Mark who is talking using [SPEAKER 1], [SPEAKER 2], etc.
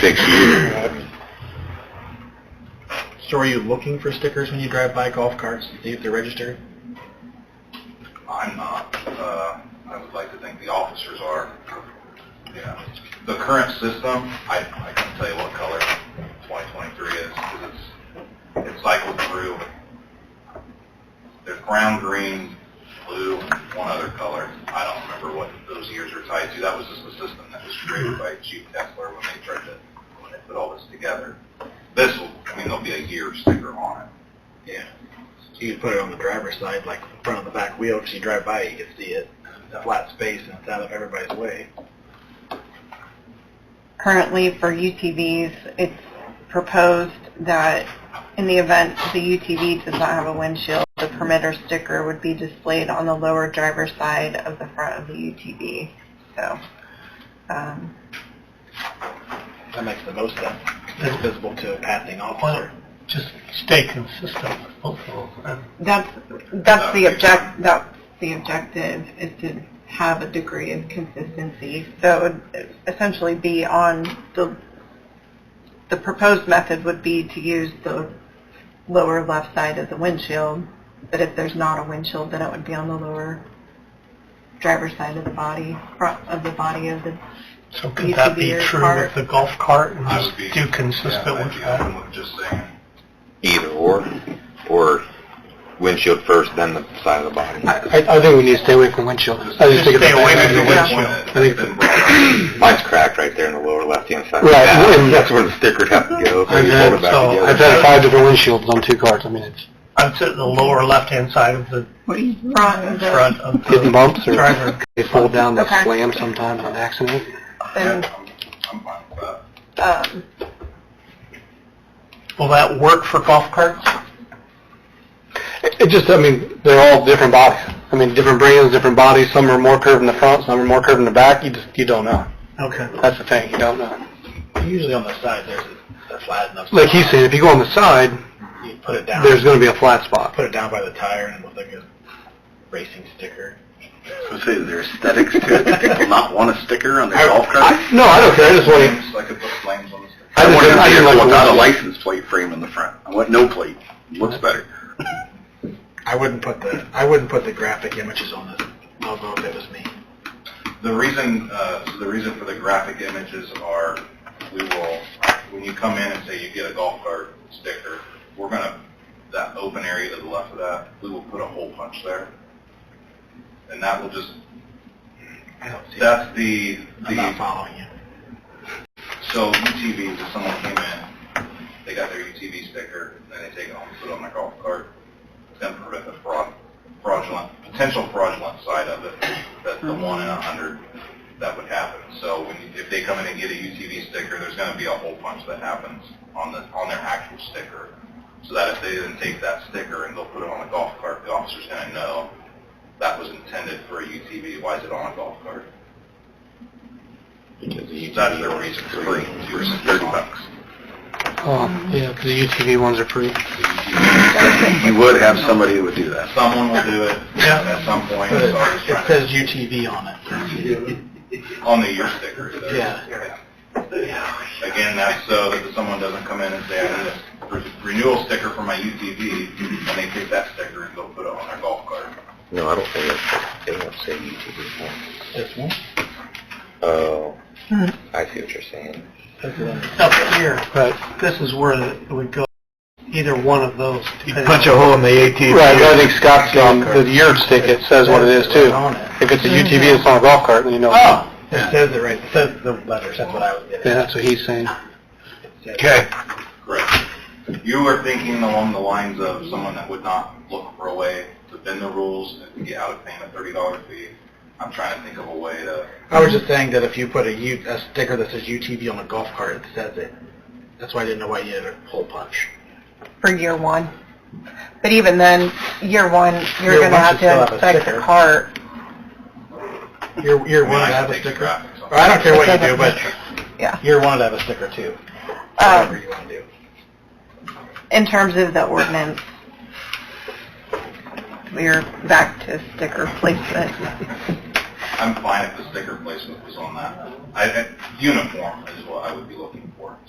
[SPEAKER 1] six years.
[SPEAKER 2] So are you looking for stickers when you drive by golf carts to see if they're registered?
[SPEAKER 3] I'm not. Uh, I would like to think the officers are. Yeah. The current system, I, I can tell you what color 2023 is because it's it cycled through. There's brown, green, blue, and one other color. I don't remember what those years are tied to. That was just the system that was created by Chief Kessler when they tried to when they put all this together. This will, I mean, there'll be a year sticker on it.
[SPEAKER 2] Yeah. So you put it on the driver's side, like in front of the back wheel, because you drive by, you can see it. It's a flat space and it's out of everybody's way.
[SPEAKER 4] Currently, for UTVs, it's proposed that in the event the UTV does not have a windshield, the permitter sticker would be displayed on the lower driver's side of the front of the UTV. So, um,
[SPEAKER 2] That makes the most sense. It's visible to a passing officer.
[SPEAKER 5] Well, just stay consistent with both of them.
[SPEAKER 4] that's, that's the object, that's the objective, is to have a degree of consistency. So it would essentially be on the, the proposed method would be to use the lower left side of the windshield, but if there's not a windshield, then it would be on the lower driver's side of the body, front of the body of the,
[SPEAKER 5] So could that be
[SPEAKER 4] UTV or
[SPEAKER 5] true
[SPEAKER 4] cart.
[SPEAKER 5] with the golf cart and
[SPEAKER 3] I
[SPEAKER 5] just
[SPEAKER 3] would be-
[SPEAKER 5] do
[SPEAKER 3] yeah,
[SPEAKER 5] consistent
[SPEAKER 3] I'd
[SPEAKER 5] with
[SPEAKER 3] be
[SPEAKER 5] that?
[SPEAKER 3] open with just saying
[SPEAKER 1] Either or, or windshield first, then the side of the body.
[SPEAKER 6] I, I think we need to stay away from windshield. I just
[SPEAKER 5] Just
[SPEAKER 6] think it's
[SPEAKER 5] stay
[SPEAKER 6] a
[SPEAKER 5] away
[SPEAKER 6] bad
[SPEAKER 5] from the
[SPEAKER 6] idea.
[SPEAKER 5] windshield.
[SPEAKER 6] I think it's a-
[SPEAKER 1] Mine's cracked right there in the lower left-hand side.
[SPEAKER 6] Right,
[SPEAKER 1] Yeah,
[SPEAKER 6] and-
[SPEAKER 1] That's where the sticker'd have to go. so
[SPEAKER 6] I've
[SPEAKER 1] you
[SPEAKER 6] had-
[SPEAKER 1] fold it back
[SPEAKER 5] so
[SPEAKER 1] together.
[SPEAKER 6] uh, I've had five different windshields on two cars. I mean, it's
[SPEAKER 5] I'd sit in the lower left-hand side of the
[SPEAKER 4] front of the,
[SPEAKER 5] front of
[SPEAKER 6] getting
[SPEAKER 5] the
[SPEAKER 6] bumps or
[SPEAKER 5] driver.
[SPEAKER 6] they fall down, they
[SPEAKER 4] Okay.
[SPEAKER 6] slam sometimes on accident.
[SPEAKER 4] and,
[SPEAKER 3] I'm fine with that.
[SPEAKER 4] um,
[SPEAKER 5] Will that work for golf carts?
[SPEAKER 6] It, it just, I mean, they're all different bodies. I mean, different brands, different bodies. Some are more curved in the front, some are more curved in the back. You just, you don't know.
[SPEAKER 5] Okay.
[SPEAKER 6] That's the thing, you don't know.
[SPEAKER 2] Usually on the side, there's a, a flat enough.
[SPEAKER 6] Like he's saying, if you go on the side,
[SPEAKER 2] You put it down.
[SPEAKER 6] there's going to be a flat spot.
[SPEAKER 2] put it down by the tire and it looks like a racing sticker.
[SPEAKER 1] I was gonna say, is there aesthetics to it? Do people not want a sticker on their golf cart?
[SPEAKER 6] I, no, I don't care. I just want to.
[SPEAKER 3] Flames, I could put flames on this.
[SPEAKER 6] I just, I just like the windshield.
[SPEAKER 1] license plate frame in the front. I want no plate. Looks better.
[SPEAKER 2] I wouldn't put the I wouldn't put the graphic images on this logo if it was me.
[SPEAKER 3] The reason, uh, so the reason for the graphic images are, we will, when you come in and say you get a golf cart sticker, we're gonna, that open area to the left of that, we will put a hole punch there. And that will just,
[SPEAKER 2] I don't see. it.
[SPEAKER 3] that's the,
[SPEAKER 2] I'm not
[SPEAKER 3] the,
[SPEAKER 2] following you.
[SPEAKER 3] so UTVs, if someone came in, they got their UTV sticker, then they take it home, put it on their golf cart, it's gonna prevent the fraud, fraudulent, potential fraudulent side of it, that's the one in a hundred that would happen. So when you, if they come in and get a UTV sticker, there's going to be a hole punch that happens on the on their actual sticker. So that if they then take that sticker and go put it on a golf cart, the officer's going to know that was intended for a UTV. Why is it on a golf cart? That's the reason for the thirty bucks.
[SPEAKER 6] Oh, yeah, because the UTV ones are pretty.
[SPEAKER 1] You would have somebody who would do that.
[SPEAKER 3] Someone will do it
[SPEAKER 5] Yeah.
[SPEAKER 3] at some point.
[SPEAKER 2] But
[SPEAKER 3] So I was
[SPEAKER 2] it, it
[SPEAKER 3] trying to,
[SPEAKER 2] says UTV on it.
[SPEAKER 3] on the year sticker. it does.
[SPEAKER 2] Yeah.
[SPEAKER 3] Again, that's so that someone doesn't come in and say, I need a re- renewal sticker for my UTV, and they take that sticker and go put it on their golf cart.
[SPEAKER 1] No, I don't think that's, they don't say UTV.
[SPEAKER 2] This one.
[SPEAKER 1] Oh, I see what you're saying.
[SPEAKER 5] Up here,
[SPEAKER 6] Right.
[SPEAKER 5] this is where it would go, either one of those. depending on-
[SPEAKER 6] hole in the ATV. Right, but I think Scott's saying the yard ticket says what it is too.
[SPEAKER 2] On it.
[SPEAKER 6] If it's a UTV, it's not a golf cart, then you know.
[SPEAKER 2] Oh, it says it right. It says the letters. That's what I was getting.
[SPEAKER 6] Yeah,
[SPEAKER 2] at.
[SPEAKER 6] that's what he's saying.
[SPEAKER 2] It says-
[SPEAKER 5] Okay.
[SPEAKER 3] Correct. You were thinking along the lines of someone that would not look for a way to bend the rules and get out of paying a thirty dollar fee. I'm trying to think of a way to,
[SPEAKER 2] I was just saying that if you put a, U, a sticker that says UTV on a golf cart, it says it. That's why I didn't know why you had a hole punch.
[SPEAKER 4] for year one. But even then, year one, you're
[SPEAKER 2] Year one
[SPEAKER 4] going to have
[SPEAKER 2] should still have
[SPEAKER 4] to
[SPEAKER 2] a
[SPEAKER 4] inspect
[SPEAKER 2] sticker.
[SPEAKER 4] the cart.
[SPEAKER 2] Year, year
[SPEAKER 3] I
[SPEAKER 2] one
[SPEAKER 3] mean, I could
[SPEAKER 2] would have a
[SPEAKER 3] take the
[SPEAKER 2] sticker.
[SPEAKER 3] graphics off.
[SPEAKER 2] Or I don't care what you do, but
[SPEAKER 4] Yeah.
[SPEAKER 2] year one would have a sticker too. Whatever
[SPEAKER 4] Um,
[SPEAKER 2] you want to do.
[SPEAKER 4] in terms of the ordinance, we're back to sticker placement.
[SPEAKER 3] I'm fine if the sticker placement was on that. I, I- uniform is what I would be looking for.